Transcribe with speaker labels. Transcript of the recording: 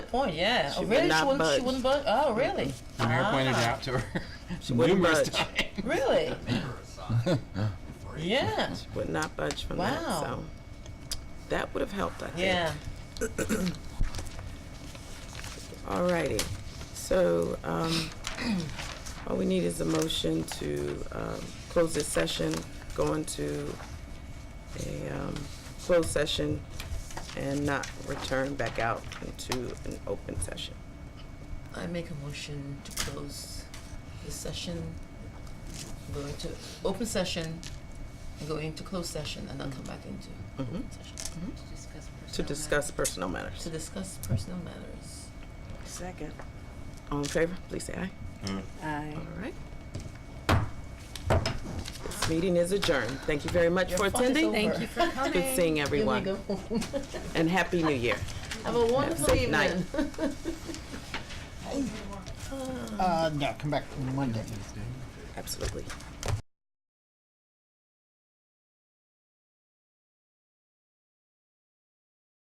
Speaker 1: point. Yeah.
Speaker 2: She
Speaker 1: oh,
Speaker 2: would
Speaker 1: really?
Speaker 2: not
Speaker 1: she wouldn't.
Speaker 2: budge.
Speaker 1: She wouldn't budge. Oh, really?
Speaker 3: The mayor pointed it
Speaker 1: Ah,
Speaker 3: out to her
Speaker 2: wouldn't
Speaker 3: numerous
Speaker 2: budge.
Speaker 3: times.
Speaker 1: Really? yeah.
Speaker 2: would not budge from that.
Speaker 1: Wow.
Speaker 2: So that would have helped, I think.
Speaker 1: Yeah.
Speaker 2: All righty. So um, all we need is a motion to um, close this session, go into a um, closed session, and not return back out into an open session.
Speaker 4: I make a motion to close the session, go into open session, and go into closed session, and then come back into open
Speaker 1: Mm-hmm.
Speaker 4: session
Speaker 2: To discuss personal matters.
Speaker 4: to discuss personal matters.
Speaker 5: Second.
Speaker 2: All in favor, please say aye.
Speaker 5: Aye.
Speaker 2: All right. This meeting is adjourned. Thank you very much for attending.
Speaker 1: Thank you for
Speaker 2: It's Good seeing everyone,
Speaker 1: Here we go.
Speaker 2: and Happy New Year.
Speaker 1: Have a
Speaker 2: Have a
Speaker 1: wonderful
Speaker 2: safe
Speaker 1: evening.
Speaker 2: night.
Speaker 6: Uh, no, come back Monday.
Speaker 2: Absolutely.